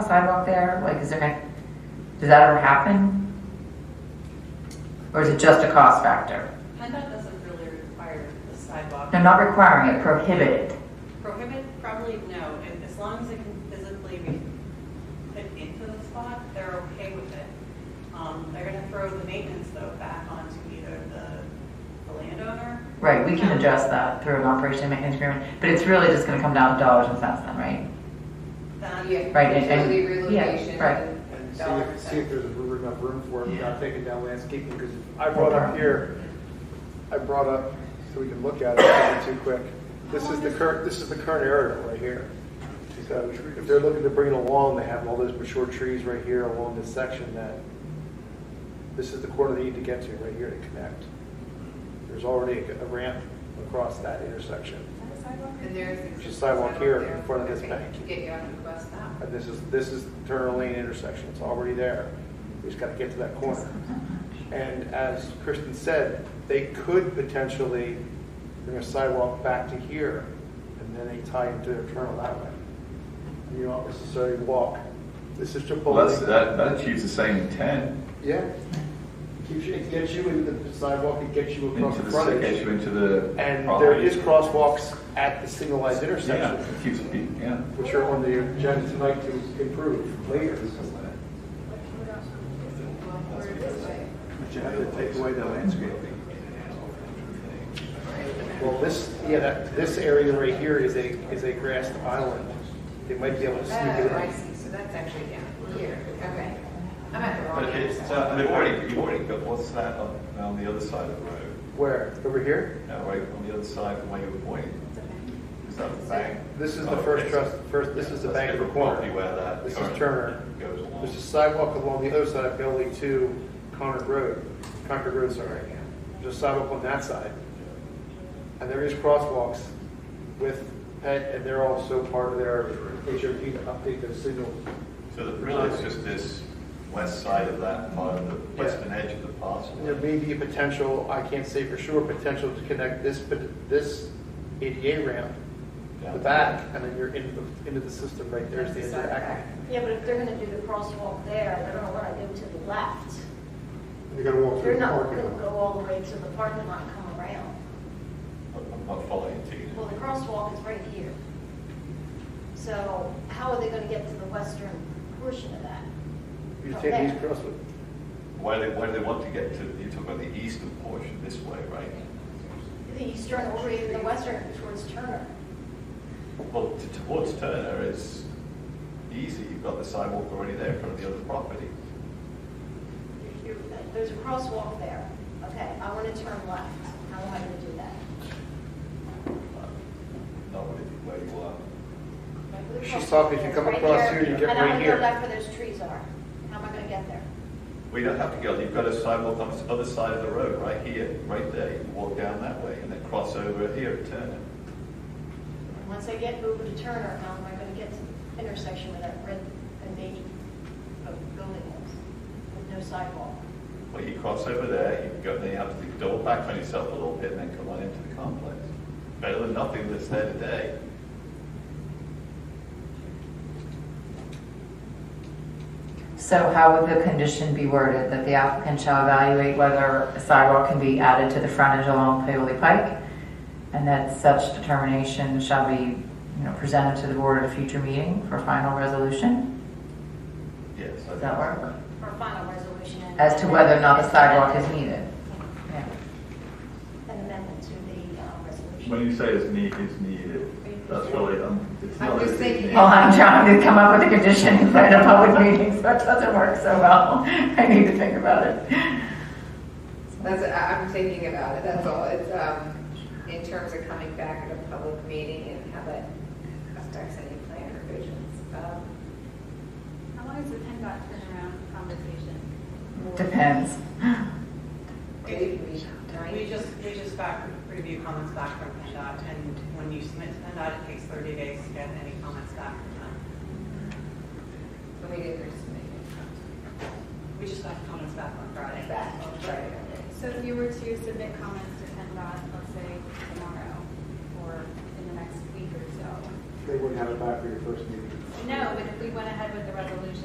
sidewalk there? Like, is there, any- does that ever happen? Or is it just a cost factor? PennDOT doesn't really require the sidewalk. They're not requiring it, prohibited. Prohibit, probably no, And as long as it can physically be put into the spot, they're okay with it. Um, They're gonna throw the maintenance though back onto either the, the landowner. Right, we can adjust that through an operation and maintenance agreement, but it's really just gonna come down to dollars and cents then, right? Then, Yeah, Right, and- and- utility yeah, relocation. right. and And see dollar if, see if percent. there's enough room for it Yeah. without taking down landscaping, because I brought up here, I brought up, so we can look at it, it's not too quick. This is the current, this is the current area right here. So if they're looking to bring it along, they have all those mature trees right here along this section that, this is the corner they need to get to, right here to connect. There's already a ramp across that intersection, And there's. existing sidewalk here in there. front of this Okay, bank. to Get you out of the bus now. and Uh, this is, this is turn lane intersection, it's already there. We just gotta get to that corner. And as Kristen said, they could potentially bring a sidewalk back to here, and then they tie into their turn that way. And you don't necessarily walk. This is Chipotle. Well, that's, that, that achieves the same intent, Yeah. Keeps you, it gets you into the sidewalk, it gets you across into the the, city- gets frontage. you into the. And there property. is crosswalks at the signalized Yeah, intersection, it keeps, pe- yeah. which are on the agenda tonight to improve later. Well, we're this way. But you have to take away the landscaping. Well, this, yeah, that, this area right here is a, is a grassed island. They might be able to Oh, sneak it I in. see, so that's actually down here, okay. I'm at the wrong But end. it's, uh, they've already, you've already got, what's that on, on the other side of the road? Where? Over here? No, right, on the other side from where you were pointing. Is that the bank? This is Oh, the okay, first so- trust, first, this is the That's bank of the different property corner. where that This is current Turner. Goes along. There's a sidewalk along the other side of Bailey to Concord Road, Concord Road, sorry. There's a sidewalk on that side. And there is crosswalks with, and and they're also part of their HOP to update their signal. So that really it's just this west side of that part of the western edge of the parcel. There may be a potential, I can't say for sure, potential to connect this, but this ADA ramp, down the back, and then you're into the, into the system right there is the That's the interact. sidewalk. Yeah, but if they're gonna do the crosswalk there, they're gonna wanna go to the left. You're gonna walk They're not gonna go all the way to the parking lot and come around. I'm not following you. Well, the crosswalk is right here. So how are they gonna get to the western portion of that? You take these crosswalks. Why do they, why do they want to get to, you talk about the eastern portion this way, right? The eastern or even the western towards Turner. Well, t- towards Turner is easy, you've got the sidewalk already there in front of the other property. You're- There's a crosswalk there. Okay, I wanna turn left. How am I gonna do that? Uh, Not really where you are. Like, the She's talking, if you crosswalk come is right across here, you get right And I'm gonna here. go back where those trees are. How am I gonna get there? We don't have to go, you've got a sidewalk on the other side of the road, right here, right there, you can walk down that way and then cross over here at Turner. Once I get over to Turner, how am I going to get to the intersection where that red and beige bu- building is with no sidewalk? Well, you cross over there, you go, then you have to double back on yourself a little bit and then come on into the complex. Better than nothing that's there today. So how would the condition be worded, that the applicant shall evaluate whether a sidewalk can be added to the frontage along Paoli Pike? And that such determination shall be, you know, presented to the board at a future meeting for final resolution? Yes. I Does that think- work? For a final resolution. and- As to whether or not a sidewalk is needed? Yeah. An amendment to the uh, resolution. When you say it's need, it's needed, that's really, um, it's I'm not. just as thinking- needed. Well, I'm trying to come up with a condition in front of public meetings, so it doesn't work so well. I need to think about it. That's, I- I'm thinking about it, that's all. It's, um, in terms of coming back at a public meeting and how that affects any plan revisions. Um, How long is the PennDOT turnaround conversation? Depends. Maybe we, we nine, just, we just back, review comments back from PennDOT, and when you submit to PennDOT, it takes 30 days to get any comments back from them. when we did this meeting. We just got comments back on Friday. Back, sorry. So if you were to submit comments to PennDOT, let's say tomorrow or in the next week or so. They wouldn't have it back for your first meeting. No, but if we went ahead with the